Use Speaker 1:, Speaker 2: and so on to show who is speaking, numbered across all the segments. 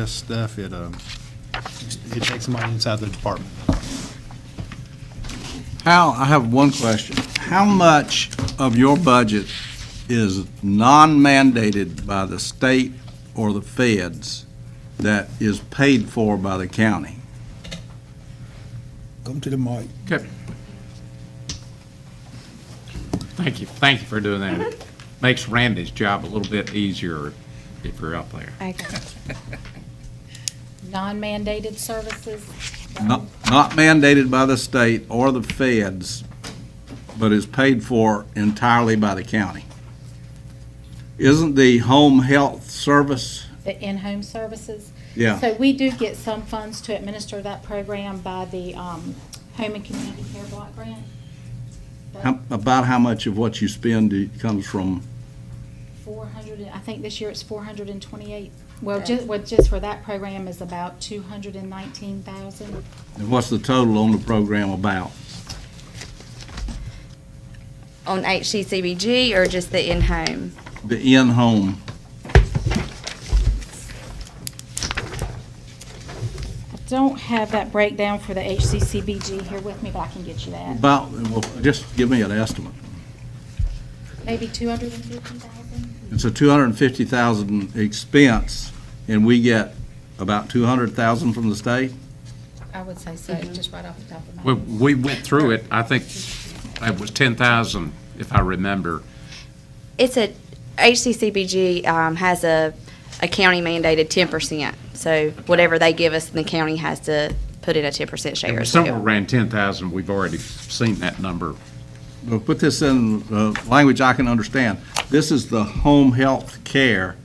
Speaker 1: this stuff, it, um, it takes money inside the department.
Speaker 2: How, I have one question. How much of your budget is non-mandated by the state or the feds that is paid for by the county?
Speaker 3: Come to the mic.
Speaker 4: Okay. Thank you, thank you for doing that. It Makes Randy's job a little bit easier if you're up there.
Speaker 5: Okay. Non-mandated services?
Speaker 2: Not not mandated by the state or the feds, but is paid for entirely by the county. Isn't the home health service,
Speaker 5: The in-home services?
Speaker 2: yeah,
Speaker 5: So we do get some funds to administer that program by the um, Home and Community Care Block Grant. But
Speaker 2: how- about how much of what you spend comes from,
Speaker 5: 400, I think this year it's 428. Well, just, well, just for that program is about 219,000.
Speaker 2: what's the total on the program about?
Speaker 6: on HCCBG or just the in-home?
Speaker 2: The in-home,
Speaker 5: I don't have that breakdown for the HCCBG here with me, but I can get you that.
Speaker 2: about, well, just give me an estimate.
Speaker 5: Maybe 250,000?
Speaker 2: It's a 250,000 expense, and we get about 200,000 from the state?
Speaker 5: I would say so, just right off the top of my
Speaker 4: We,
Speaker 5: head.
Speaker 4: we went through it, I think it was ten thousand, if I remember.
Speaker 6: It's a, HCCBG um, has a, a county mandated 10%. So whatever they give us, the county has to put in a 10%
Speaker 4: It
Speaker 6: share
Speaker 4: was
Speaker 6: as
Speaker 4: somewhere
Speaker 6: well.
Speaker 4: around ten thousand, we've already seen that number.
Speaker 2: Well, put this in uh, language I can understand. This is the home health care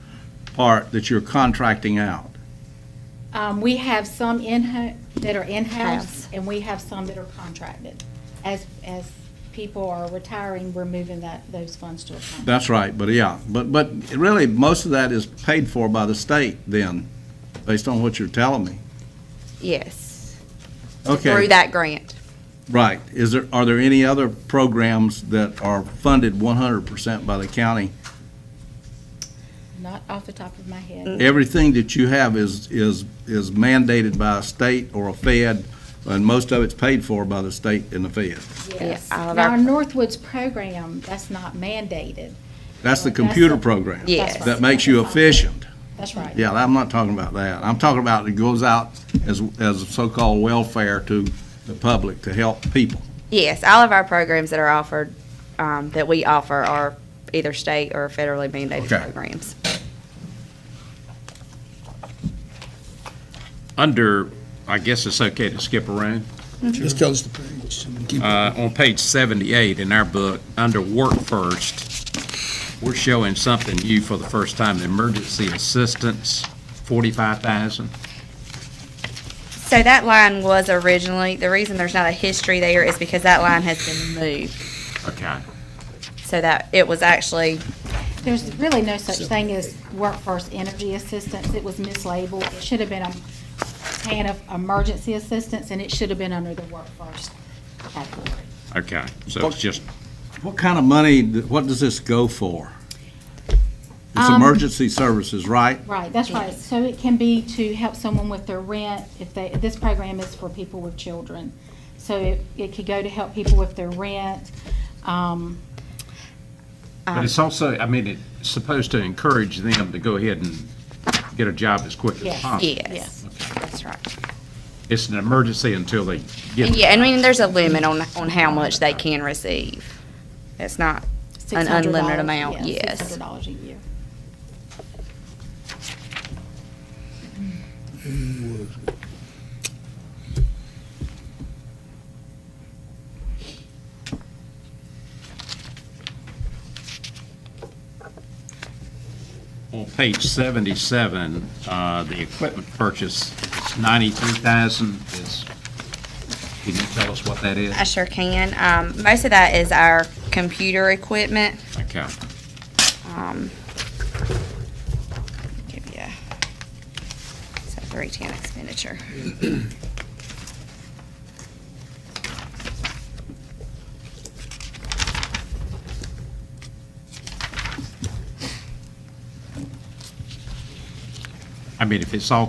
Speaker 2: part that you're contracting out.
Speaker 5: Um, we have some in, that are in-house,
Speaker 6: House.
Speaker 5: and we have some that are contracted. As, as people are retiring, we're moving that, those funds to a contract.
Speaker 2: That's right, but yeah, but, but really, most of that is paid for by the state then, based on what you're telling me.
Speaker 6: Yes.
Speaker 2: Okay.
Speaker 6: Through that grant.
Speaker 2: Right. Is there, are there any other programs that are funded 100% by the county?
Speaker 5: Not off the top of my
Speaker 6: Mm,
Speaker 5: head.
Speaker 2: Everything that you have is, is, is mandated by a state or a fed, and most of it's paid for by the state and the fed.
Speaker 5: Yes.
Speaker 6: all
Speaker 5: Now,
Speaker 6: of
Speaker 5: our
Speaker 6: our-
Speaker 5: Northwoods program, that's not mandated.
Speaker 2: That's the
Speaker 5: That's the-
Speaker 2: computer program.
Speaker 6: Yes.
Speaker 5: That's right.
Speaker 2: That makes you efficient.
Speaker 5: That's right.
Speaker 2: Yeah, I'm not talking about that. I'm talking about it goes out as, as so-called welfare to the public to help people.
Speaker 6: Yes, all of our programs that are offered, um, that we offer are either state or federally mandated
Speaker 2: Okay.
Speaker 6: programs.
Speaker 4: Under, I guess it's okay to skip around?
Speaker 3: Just tell us the price and keep it.
Speaker 4: Uh, on page 78 in our book, under Work First, we're showing something new for the first time, emergency assistance, 45,000.
Speaker 6: So that line was originally, the reason there's not a history there is because that line has been moved.
Speaker 4: Okay.
Speaker 6: So that, it was actually
Speaker 5: There's really no such thing as workforce energy assistance. It was mislabeled. It should have been a plan of emergency assistance, and it should have been under the workforce category.
Speaker 4: Okay, so it's just,
Speaker 2: What kind of money, what does this go for? It's emergency services, right?
Speaker 5: Right, that's right. So it can be to help someone with their rent if they, this program is for people with children. So it, it could go to help people with their rent. Um,
Speaker 4: but it's also, I mean, it's supposed to encourage them to go ahead and get a job as quick as
Speaker 5: Yes.
Speaker 4: possible.
Speaker 6: Yes, that's right.
Speaker 4: It's an emergency until they get.
Speaker 6: Yeah, and I mean, there's a limit on, on how much they can receive. It's not, An unlimited
Speaker 5: $600
Speaker 6: amount,
Speaker 5: yeah,
Speaker 6: yes.
Speaker 5: $600 a year.
Speaker 4: On page 77, uh, the equipment purchase, is 93,000 is, can you tell us what that is?
Speaker 6: I sure can. Um, most of that is our computer equipment.
Speaker 4: Okay.
Speaker 6: Um, give you, it's a three-ten expenditure.
Speaker 4: I mean, if it's all